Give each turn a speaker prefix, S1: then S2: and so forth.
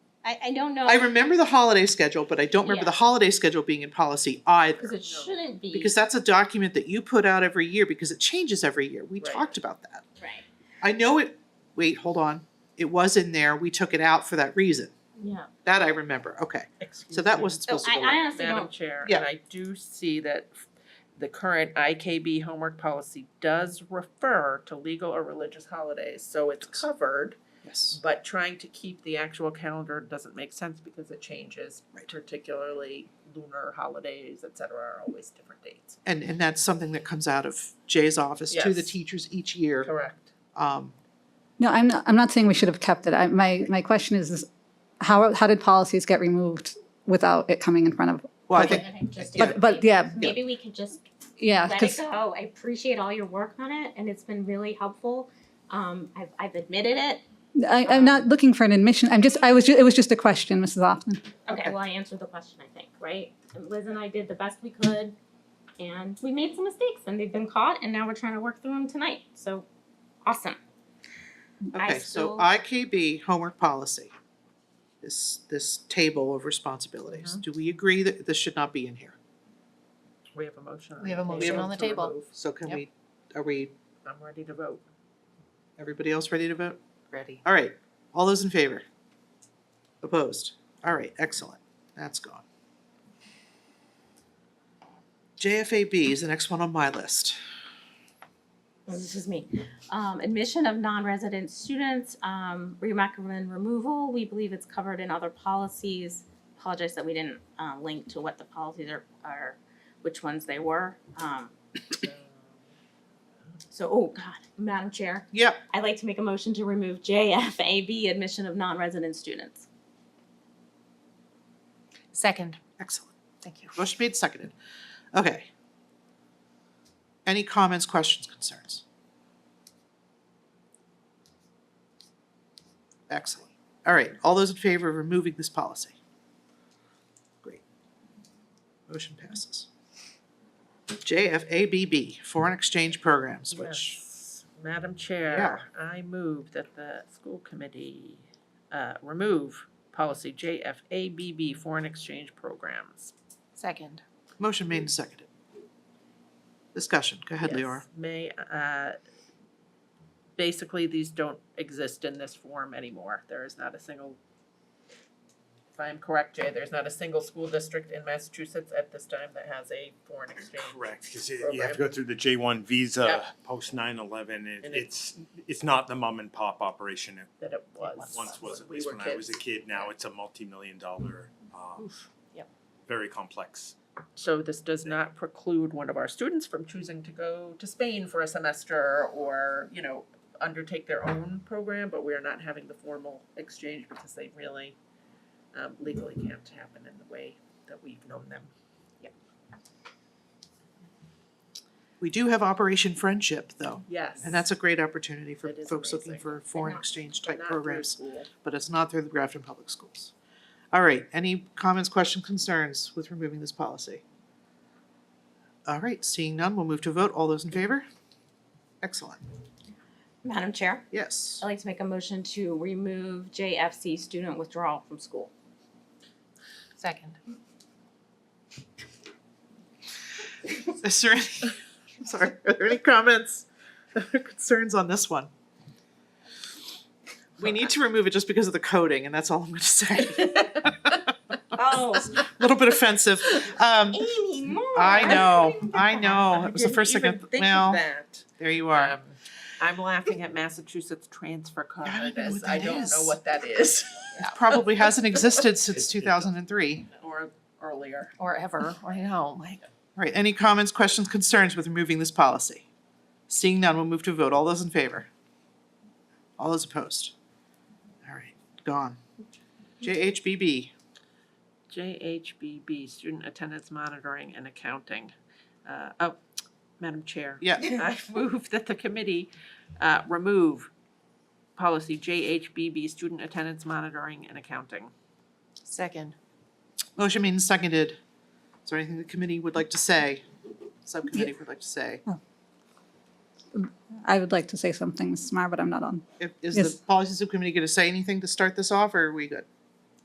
S1: I, I don't know,
S2: I remember the holiday schedule, but I don't remember the
S1: Yeah.
S2: holiday schedule being in policy either.
S1: because it shouldn't be,
S2: Because that's a document that you put out every year because it changes every year. We
S3: Right.
S2: talked about that.
S1: right,
S2: I know it, wait, hold on. It was in there. We took it out for that reason.
S1: yeah.
S2: That I remember. Okay.
S3: Excuse
S2: So that
S3: me.
S2: wasn't
S1: Mm-hmm. So
S2: supposed to
S1: I,
S2: go
S1: I
S2: in.
S1: honestly
S3: Madam
S1: don't,
S3: Chair,
S2: Yeah.
S3: and I do see that f- the current IKB homework policy does refer to legal or religious holidays, so it's covered.
S2: Yes.
S3: But trying to keep the actual calendar doesn't make sense because it changes,
S2: Right.
S3: particularly lunar holidays, et cetera, are always different dates.
S2: And, and that's something that comes out of Jay's office to the
S3: Yes.
S2: teachers each year.
S3: Correct.
S2: Um,
S4: No, I'm not, I'm not saying we should have kept it. I, my, my question is, is how, how did policies get removed without it coming in front of,
S2: well, I
S4: Okay.
S2: think,
S1: I think just
S2: Yeah.
S1: don't-
S4: but, but yeah,
S1: Maybe we could just
S4: yeah.
S1: let it
S4: 'cause-
S1: go. I appreciate all your work on it and it's been really helpful. Um, I've, I've admitted it.
S4: I, I'm not looking for an admission. I'm just, I was, ju- it was just a question, Mrs. Lofton.
S1: Okay,
S2: Okay.
S1: well, I answered the question, I think, right? Liz and I did the best we could and we made some mistakes and they've been caught and now we're trying to work through them tonight. So, awesome. I
S2: okay, so
S1: still-
S2: IKB homework policy. This, this table of
S1: Mm-hmm.
S2: responsibilities. Do we agree that this should not be in here?
S3: We have a motion. on
S5: We have a
S3: the
S5: motion
S3: table
S5: on the
S3: to
S5: table.
S3: remove.
S2: So can
S5: Yep.
S2: we, are we,
S3: I'm ready to vote.
S2: everybody else ready to vote?
S5: Ready.
S2: All right, all those in favor? Opposed? All right, excellent, that's gone. JFAB is the next one on my list.
S1: Oh, This is me. Um, admission of non-resident students, um, we recommend removal. We believe it's covered in other policies. Apologize that we didn't, uh, link to what the policies are, are, which ones they were. Um, so, oh God, Madam Chair,
S2: Yep,
S1: I'd like to make a motion to remove JFAB, admission of non-resident students.
S5: Second.
S2: excellent,
S5: Thank you.
S2: motion made, seconded, okay. Any comments, questions, concerns? Excellent, all right, all those in favor of removing this policy? Great. Motion passes. JFABB, foreign exchange programs, which
S3: Yes. Madam Chair, I move that the school committee uh, remove policy JFABB foreign exchange programs.
S5: Second.
S2: Motion made and seconded. Discussion, go ahead,
S3: Yes.
S2: Leora.
S3: May, uh, basically, these don't exist in this form anymore. There is not a single, if I am correct, Jay, there's not a single school district in Massachusetts at this time that has a foreign exchange.
S6: Correct, because you have to go through the J one visa
S3: Yep.
S6: post nine eleven,
S3: And
S6: it's, it's not the mum and pop operation it
S3: That it was.
S6: once was, at
S3: We
S6: least
S3: were
S6: when I was a
S3: kids.
S6: kid, now it's a multi-million dollar, uh,
S5: Yep.
S6: very complex.
S3: So this does not preclude one of our students from choosing to go to Spain for a semester or, you know, undertake their own program, but we are not having the formal exchange because they really um, legally can't happen in the way that we've known them.
S2: We do have Operation Friendship, though,
S3: Yes.
S2: and that's a great opportunity for
S3: It is
S2: folks looking
S3: amazing.
S2: for foreign
S1: not-
S2: exchange
S3: But
S2: type
S3: not through
S2: programs,
S3: school.
S2: but it's not through the Grafton Public Schools. All right, any comments, questions, concerns with removing this policy? All right, seeing none, we'll move to a vote. All those in favor? Excellent,
S1: Madam Chair,
S2: yes.
S1: I'd like to make a motion to remove JFC student withdrawal from school.
S5: Second.
S2: Is there any, I'm sorry, are there any comments or concerns on this one? We need to remove it just because of the coding, and that's all I'm gonna say.
S1: Oh,
S2: A little bit offensive. Um,
S1: Amy Moore.
S2: I know,
S1: didn't even
S2: I
S1: think
S2: know. It was the
S3: didn't
S2: first thing, I
S3: even
S2: th-
S3: think of
S2: well,
S3: that.
S2: there you are.
S3: Um, I'm laughing at Massachusetts transfer card
S2: I don't know
S3: as
S2: what
S3: I
S2: that
S3: don't know
S2: is.
S3: what that is
S2: Probably hasn't existed since
S6: It- it-
S2: two thousand and three.
S3: or earlier.
S5: Or ever, or oh no, like,
S2: All right, any comments, questions, concerns with removing this policy? Seeing none, we'll move to a vote. All those in favor? All those opposed? All right, gone. JHBB.
S3: JHBB, Student Attendance Monitoring and Accounting. Uh, oh, Madam Chair.
S2: Yeah.
S3: I move that the committee, uh, remove policy JHBB, Student Attendance Monitoring and Accounting.
S5: second.
S2: Motion made and seconded. Is there anything the committee would like to say? Subcommittee would like to say?
S4: I would like to say something, Mrs. Mar, but I'm not on.
S2: If- Is
S4: Yes.
S2: the policy subcommittee gonna say anything to start this off, or are we good?